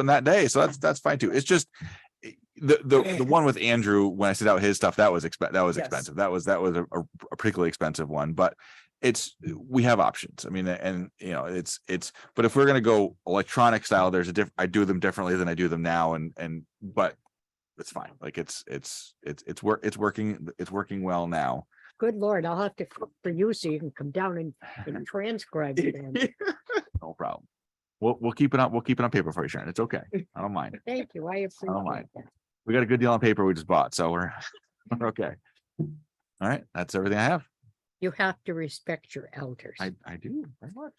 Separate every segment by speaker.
Speaker 1: on that day. So that's, that's fine too. It's just eh, the, the, the one with Andrew, when I sent out his stuff, that was exp, that was
Speaker 2: Yes.
Speaker 1: expensive. That was, that was a, a a particularly expensive one, but it's, we have options. I mean, and you know, it's, it's, but if we're going to go electronic style, there's a diff, I do them differently than I do them now. And, and, but it's fine. Like it's, it's, it's, it's work, it's working, it's working well now.
Speaker 3: Good Lord, I'll have to cook for you so you can come down and, and transcribe it. then.
Speaker 1: No problem. We'll, we'll keep it on, we'll keep it on paper for you, Sharon. It's okay. I don't mind.
Speaker 3: Thank you. I
Speaker 1: Oh,
Speaker 3: appreciate
Speaker 1: mind.
Speaker 3: that.
Speaker 1: We got a good deal on paper we just bought, so we're, we're okay. All right, that's everything I have.
Speaker 3: You have to respect your elders,
Speaker 1: I, I do very much.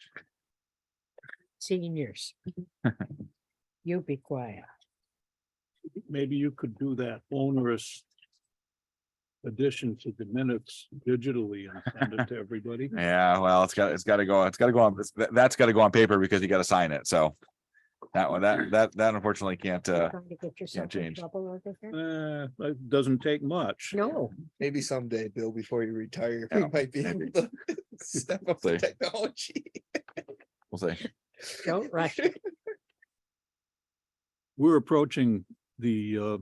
Speaker 3: seniors. You be quiet.
Speaker 4: maybe you could do that onerous addition to the minutes digitally and send it to everybody.
Speaker 1: Yeah, well, it's got, it's gotta go, it's gotta go on, it's- that- that's gotta go on paper because you gotta sign it, so. That one, that, that, that unfortunately can't,
Speaker 3: You're
Speaker 1: uh,
Speaker 3: trying to get yourself in
Speaker 1: change.
Speaker 3: trouble over here?
Speaker 4: Uh, it doesn't take much.
Speaker 3: No,
Speaker 5: Maybe someday, Bill, before you retire,
Speaker 1: Yeah,
Speaker 5: you might be
Speaker 1: maybe.
Speaker 5: able to step up
Speaker 1: See.
Speaker 5: the technology.
Speaker 1: we'll see.
Speaker 3: don't rush. it.
Speaker 4: We're approaching the uh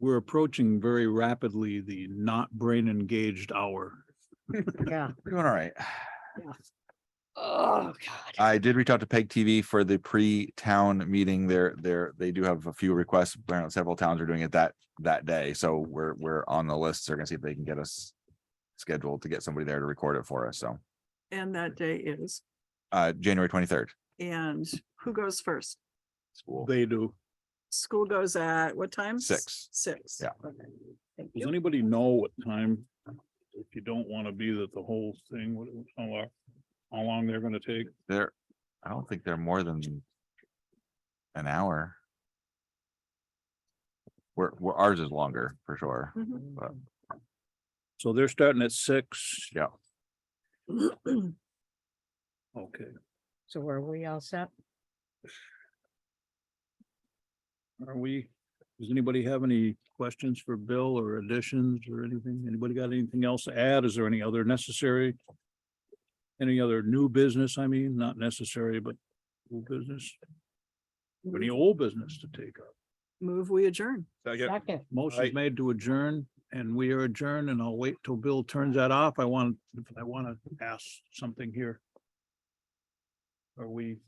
Speaker 4: we're approaching very rapidly the not brain engaged hour.
Speaker 3: Yeah.
Speaker 1: We're doing all right.
Speaker 3: Oh, God.
Speaker 1: I did reach out to Peg TV for the pre-town meeting. They're, they're, they do have a few requests. Apparently, Several towns are doing it that, that day, so we're, we're on the list. They're gonna see if they can get us scheduled to get somebody there to record it for us, so,
Speaker 6: And that day is,
Speaker 1: uh, January twenty-third.
Speaker 6: and who goes first?
Speaker 1: School.
Speaker 4: They do.
Speaker 6: School goes at what time?
Speaker 1: Six.
Speaker 6: Six.
Speaker 1: Yeah.
Speaker 6: Okay. Thank
Speaker 4: Does
Speaker 6: you.
Speaker 4: anybody know what time? If you don't want to be that the whole thing, what, how long, how long they're gonna take?
Speaker 1: They're, I don't think they're more than an hour. Where, where ours is longer for sure.
Speaker 6: Mhm.
Speaker 1: But-
Speaker 4: So they're starting at six?
Speaker 1: Yeah.
Speaker 4: Okay.
Speaker 3: So are we all set?
Speaker 4: Are we, does anybody have any questions for Bill or additions or anything? Anybody got anything else to add? Is there any other necessary? Any other new business? I mean, not necessary, but new business? Any old business to take up?
Speaker 6: Move, we adjourn.
Speaker 3: Second.
Speaker 4: Motion's made to adjourn and we are adjourned and I'll wait till Bill turns that off. I want, I want to ask something here. Are we